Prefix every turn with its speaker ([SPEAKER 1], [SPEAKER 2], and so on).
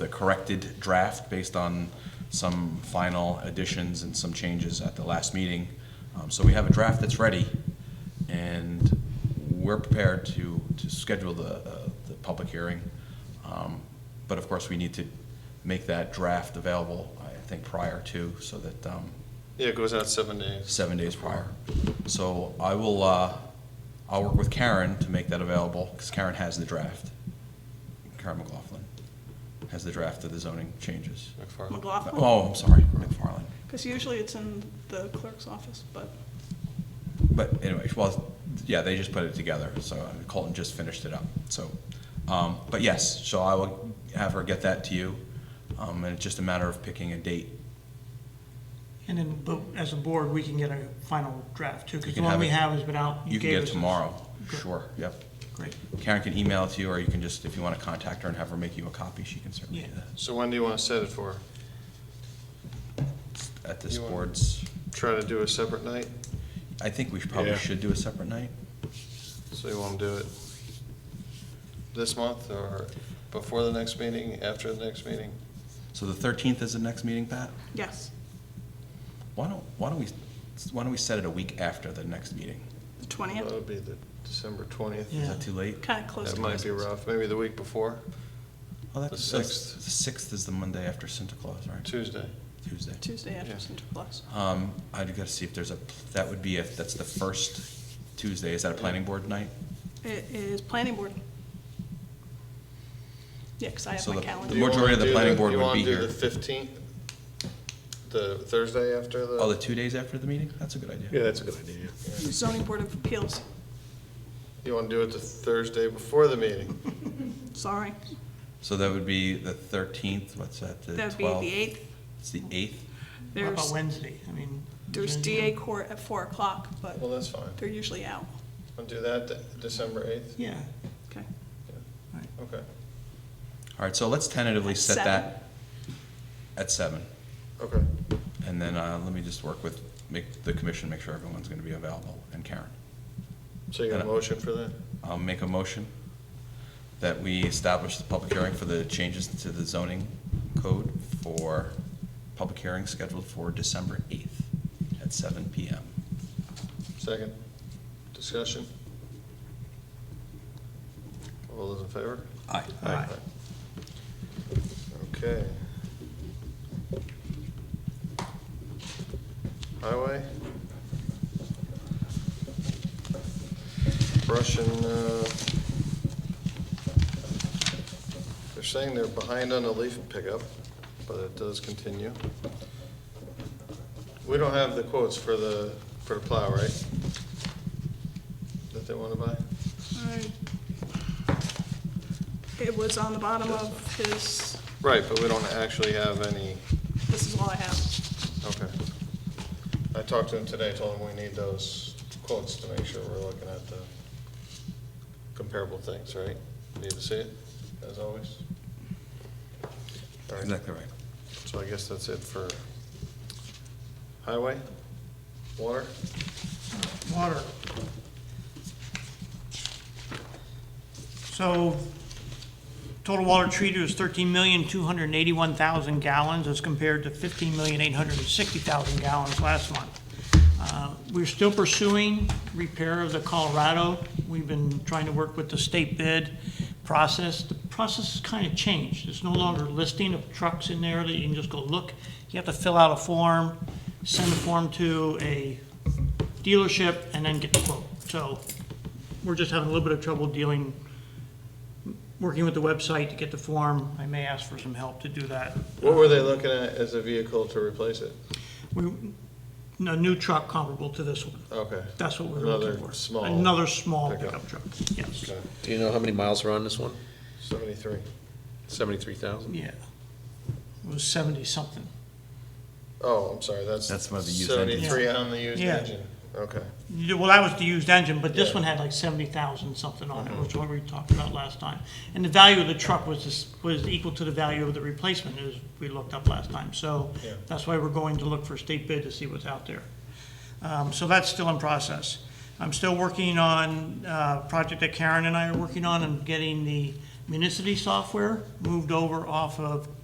[SPEAKER 1] corrected draft based on some final additions and some changes at the last meeting. Um, So we have a draft that's ready, and we're prepared to, to schedule the, uh, the public hearing. Um, But of course, we need to make that draft available, I think, prior to, so that, um,
[SPEAKER 2] Yeah, it goes out seven days.
[SPEAKER 1] seven days prior. So I will, uh, I'll work with Karen to make that available, because Karen has the draft. Karen McLaughlin has the draft of the zoning changes.
[SPEAKER 2] McFarland.
[SPEAKER 3] McLaughlin?
[SPEAKER 1] Oh, I'm sorry, McFarland.
[SPEAKER 3] Because usually it's in the clerk's office, but,
[SPEAKER 1] But anyway, well, yeah, they just put it together, so Colton just finished it up, so. Um, but yes, so I will have her get that to you, um, and it's just a matter of picking a date.
[SPEAKER 4] And then, but as a board, we can get a final draft too,
[SPEAKER 1] You
[SPEAKER 4] because the
[SPEAKER 1] can
[SPEAKER 4] one
[SPEAKER 1] have
[SPEAKER 4] we
[SPEAKER 1] it-
[SPEAKER 4] have has been out.
[SPEAKER 1] You can
[SPEAKER 4] gave
[SPEAKER 1] get it
[SPEAKER 4] us this.
[SPEAKER 1] tomorrow,
[SPEAKER 4] Good.
[SPEAKER 1] sure, yep.
[SPEAKER 4] Great.
[SPEAKER 1] Karen can email it to you, or you can just, if you want to contact her and have her make you a copy, she can certainly do
[SPEAKER 4] Yeah.
[SPEAKER 1] that.
[SPEAKER 2] So when do you want to set it for?
[SPEAKER 1] At this
[SPEAKER 2] You want-
[SPEAKER 1] board's,
[SPEAKER 2] Try to do a separate night?
[SPEAKER 1] I think we should- probably
[SPEAKER 5] Yeah.
[SPEAKER 1] should do a separate night.
[SPEAKER 2] So you want to do it this month or before the next meeting, after the next meeting?
[SPEAKER 1] So the thirteenth is the next meeting, Pat?
[SPEAKER 3] yes,
[SPEAKER 1] Why don't, why don't we, why don't we set it a week after the next meeting?
[SPEAKER 3] the
[SPEAKER 2] That
[SPEAKER 3] 20th,
[SPEAKER 2] would be the December twentieth.
[SPEAKER 1] Is
[SPEAKER 4] Yeah.
[SPEAKER 1] that too late?
[SPEAKER 3] kind of close
[SPEAKER 2] That
[SPEAKER 3] to
[SPEAKER 2] might
[SPEAKER 3] us.
[SPEAKER 2] be rough. Maybe the week before,
[SPEAKER 1] Oh,
[SPEAKER 2] The
[SPEAKER 1] that's, that's,
[SPEAKER 2] sixth.
[SPEAKER 1] the sixth is the Monday after Santa Claus, right?
[SPEAKER 2] Tuesday.
[SPEAKER 1] Tuesday.
[SPEAKER 3] Tuesday after
[SPEAKER 2] Yeah.
[SPEAKER 3] Santa Claus.
[SPEAKER 1] Um, I'd gotta see if there's a, that would be if, that's the first Tuesday, is that a planning board night?
[SPEAKER 3] It is planning board. Yeah, because I have
[SPEAKER 1] So
[SPEAKER 3] my
[SPEAKER 1] the-
[SPEAKER 3] calendar.
[SPEAKER 1] The majority of the planning board would be
[SPEAKER 2] You
[SPEAKER 1] here.
[SPEAKER 2] want to do the fifteenth, the Thursday after
[SPEAKER 1] Oh, the
[SPEAKER 2] the,
[SPEAKER 1] two days after the meeting? That's a good idea.
[SPEAKER 5] Yeah, that's a good idea.
[SPEAKER 3] Zoning Board of Appeals,
[SPEAKER 2] you want to do it the Thursday before the meeting?
[SPEAKER 3] sorry.
[SPEAKER 1] So that would be the thirteenth, what's that, the
[SPEAKER 3] That'd
[SPEAKER 1] twelfth?
[SPEAKER 3] be the 8th.
[SPEAKER 1] It's the eighth?
[SPEAKER 4] What about
[SPEAKER 3] There's,
[SPEAKER 4] Wednesday? I mean.
[SPEAKER 3] there's
[SPEAKER 4] Wednesday?
[SPEAKER 3] DA court at 4 o'clock, but
[SPEAKER 2] Well, that's fine.
[SPEAKER 3] they're usually out.
[SPEAKER 2] Want to do that de- December eighth?
[SPEAKER 4] Yeah,
[SPEAKER 3] Okay.
[SPEAKER 2] Okay,
[SPEAKER 1] All right, so let's tentatively
[SPEAKER 3] At
[SPEAKER 1] set
[SPEAKER 3] seven.
[SPEAKER 1] that at seven.
[SPEAKER 2] okay.
[SPEAKER 1] And then, uh, let me just work with, make the commission, make sure everyone's gonna be available, and Karen.
[SPEAKER 2] So you got a motion for that?
[SPEAKER 1] I'll make a motion that we establish the public hearing for the changes to the zoning code for public hearing scheduled for December eighth at seven PM.
[SPEAKER 2] Second. Discussion? All those in favor?
[SPEAKER 1] Aye.
[SPEAKER 4] Aye.
[SPEAKER 2] Okay. Highway? Russian, uh, they're saying they're behind on the leaf pickup, but it does continue. We don't have the quotes for the, for the plow, right? That they want to buy?
[SPEAKER 3] Alright. It was on the bottom of his,
[SPEAKER 2] Right, but we don't actually have any.
[SPEAKER 3] this is all I have.
[SPEAKER 2] Okay. I talked to him today, told him we need those quotes to make sure we're looking at the comparable things, right? Need to see it, as always. All right,
[SPEAKER 1] Exactly right.
[SPEAKER 2] so I guess that's it for highway, water,
[SPEAKER 4] water. So total water treated was thirteen million, two hundred and eighty-one thousand gallons as compared to fifteen million, eight hundred and sixty thousand gallons last month. Uh, We're still pursuing repair of the Colorado. We've been trying to work with the state bid process. The process has kind of changed. It's no longer listing of trucks in there that you can just go look. You have to fill out a form, send the form to a dealership, and then get the quote. So we're just having a little bit of trouble dealing, working with the website to get the form. I may ask for some help to do that.
[SPEAKER 2] what were they looking at as a vehicle to replace it?
[SPEAKER 4] We, a new truck comparable to this one.
[SPEAKER 2] Okay.
[SPEAKER 4] That's what we're looking for.
[SPEAKER 2] Another small
[SPEAKER 4] Another small
[SPEAKER 2] pickup.
[SPEAKER 4] pickup truck, yes.
[SPEAKER 2] Okay,
[SPEAKER 5] Do you know how many miles are on this one?
[SPEAKER 2] Seventy-three.
[SPEAKER 5] Seventy-three thousand?
[SPEAKER 4] Yeah. It was seventy-something.
[SPEAKER 2] Oh, I'm sorry, that's.
[SPEAKER 1] That's one of the used engines.
[SPEAKER 2] Seventy-three on the used
[SPEAKER 4] Yeah.
[SPEAKER 2] engine, okay.
[SPEAKER 4] Well, that was the used engine, but this
[SPEAKER 2] Yeah. Uh-huh.
[SPEAKER 4] one had like seventy thousand something on it, which is what we talked about last time. And the value of the truck was this, was equal to the value of the replacement, as we looked up last time. So
[SPEAKER 2] Yeah.
[SPEAKER 4] that's why we're going to look for state bid to see what's out there. Um, so that's still in process. I'm still working on uh, a project that Karen and I are working on, and getting the municity software moved over off of